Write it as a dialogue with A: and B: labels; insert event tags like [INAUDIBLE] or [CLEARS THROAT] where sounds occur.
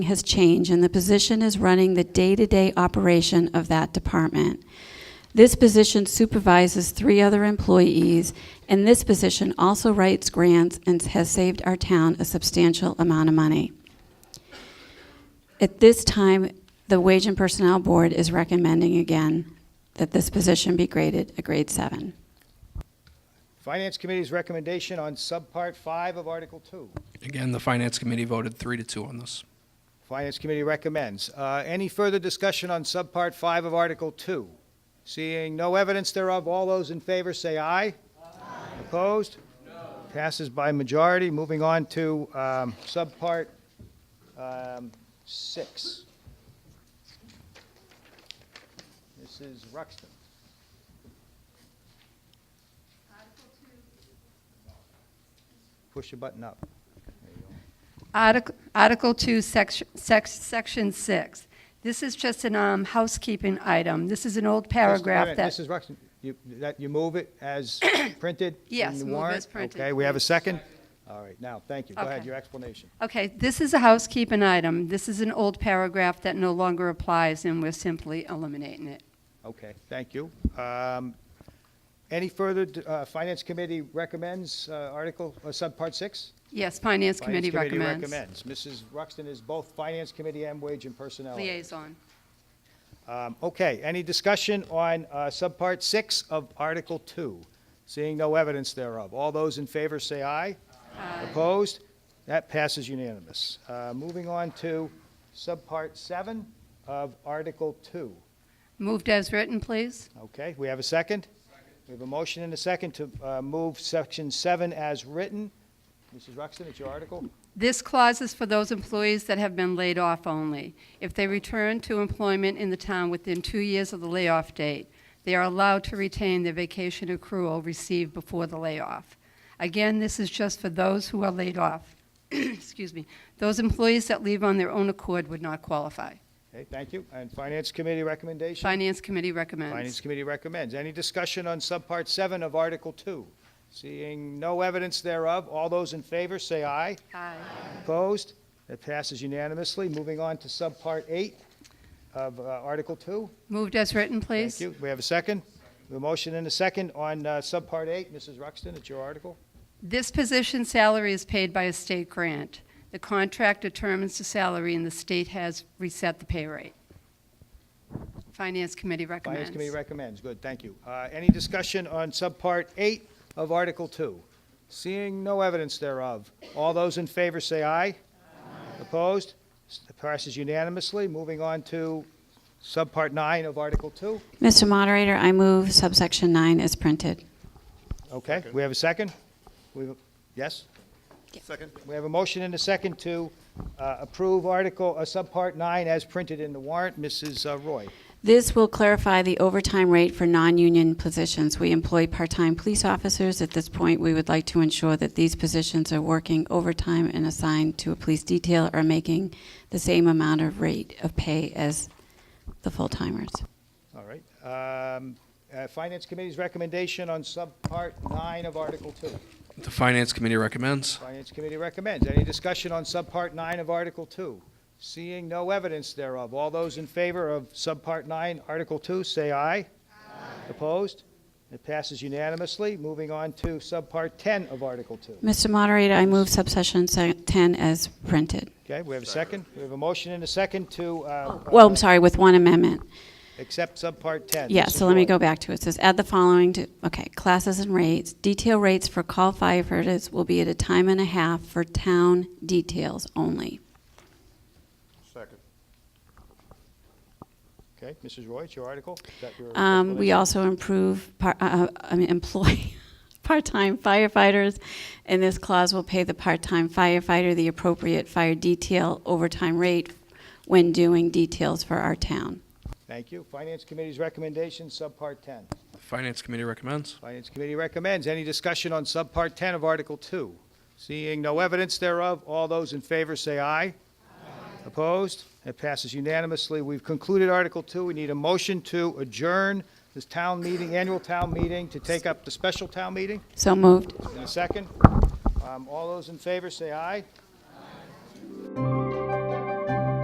A: has changed, and the position is running the day-to-day operation of that department. This position supervises three other employees, and this position also writes grants and has saved our town a substantial amount of money. At this time, the Wage and Personnel Board is recommending again that this position be graded a grade seven.
B: Finance Committee's recommendation on Subpart 5 of Article 2.
C: Again, the Finance Committee voted three to two on this.
B: Finance Committee recommends. Uh, Any further discussion on Subpart 5 of Article 2? Seeing no evidence thereof, all those in favor say aye. Aye. Opposed? No. Passes by majority. Moving on to um, Subpart um, 6. This is Ruxton. Push your button up.
D: Artic- Article 2, sec- sec- Section 6. This is just an um, housekeeping item. This is an old
B: Just a
D: paragraph
B: minute,
D: that...
B: Mrs. Ruxton, you, that, you move it
D: [COUGHS]
B: as printed? in
D: Yes,
B: the
D: move
B: warrant?
D: as printed,
B: Okay, we have a
D: please.
B: second? All right, now, thank you. Go ahead,
D: Okay.
B: your explanation.
D: Okay, this is a housekeeping item. This is an old paragraph that no longer applies, and we're simply eliminating it.
B: Okay, thank you. Um, Any further, d- uh, Finance Committee recommends uh, Article, uh, Subpart 6?
D: Yes, Finance Committee
B: Finance
D: recommends.
B: Committee recommends. Mrs. Ruxton is both Finance Committee and Wage and Personnel.
D: Liaison.
B: Um, Okay, any discussion on uh, Subpart 6 of Article 2? Seeing no evidence thereof. All those in favor say aye. Aye. Opposed? That passes unanimous. Uh, Moving on to Subpart 7 of Article 2.
D: Moved as written, please.
B: Okay, we have a second? We have a motion and a second to uh, move Section 7 as written. Mrs. Ruxton, it's your article.
D: This clause is for those employees that have been laid off only. If they return to employment in the town within two years of the layoff date, they are allowed to retain their vacation accrual received before the layoff. Again, this is just for those who are laid off. [CLEARS THROAT] Excuse me. Those employees that leave on their own accord would not qualify.
B: Okay, thank you. And Finance Committee recommendation?
D: Finance Committee recommends.
B: Finance Committee recommends. Any discussion on Subpart 7 of Article 2? Seeing no evidence thereof, all those in favor say aye.
D: Aye.
B: Opposed? That passes unanimously. Moving on to Subpart 8 of uh, Article 2.
D: Moved as written, please.
B: Thank you. We have a second? A motion and a second on uh, Subpart 8. Mrs. Ruxton, it's your article.
D: This position salary is paid by a state grant. The contract determines the salary, and the state has reset the pay rate. Finance Committee
B: Finance Committee
D: recommends.
B: recommends. Good, thank you. Uh, Any discussion on Subpart 8 of Article 2? Seeing no evidence thereof, all those in favor say aye. Opposed? S- Passes unanimously. Moving on to Subpart 9 of Article 2.
A: Mr. Moderator, I move subsection nine as printed.
B: Okay, we have a second? We have a- Yes? Second. We have a motion and a second to uh, approve Article, uh, Subpart 9 as printed in the warrant. Mrs. uh, Roy.
A: This will clarify the overtime rate for non-union positions. We employ part-time police officers. At this point, we would like to ensure that these positions are working overtime and assigned to a police detail are making the same amount of rate of pay as the full-timers.
B: All right. Um, uh, Finance Committee's recommendation on Subpart 9 of Article 2.
C: The Finance Committee recommends.
B: Finance Committee recommends. Any discussion on Subpart 9 of Article 2? Seeing no evidence thereof, all those in favor of Subpart 9, Article 2, say aye. Opposed? It passes unanimously. Moving on to Subpart 10 of Article 2.
A: Mr. Moderator, I move subsection se- 10 as printed.
B: Okay, we have a second? We have a motion and a second to uh,
A: Oh, Well,
B: uh,
A: I'm sorry, with one amendment.
B: accept Subpart 10.
A: Yeah,
B: Mrs.
A: so let me
B: Roy.
A: go back to it. It says, add the following to, okay, classes and rates. Detail rates for call firefighters will be at a time and a half for town details only.
B: Okay, Mrs. Roy, it's your article? Is that your
A: Um, we
B: explanation?
A: also improve, par- uh, I mean, employ [LAUGHS] part-time firefighters, and this clause will pay the part-time firefighter the appropriate fire detail overtime rate when doing details for our town.
B: Thank you. Finance Committee's recommendation, Subpart 10.
C: The Finance Committee recommends.
B: Finance Committee recommends. Any discussion on Subpart 10 of Article 2? Seeing no evidence thereof, all those in favor say aye. Opposed? It passes unanimously. We've concluded Article 2. We need a motion to adjourn this town meeting, annual town meeting, to take up the special town meeting.
A: So moved.
B: In a second. Um, All those in favor say aye.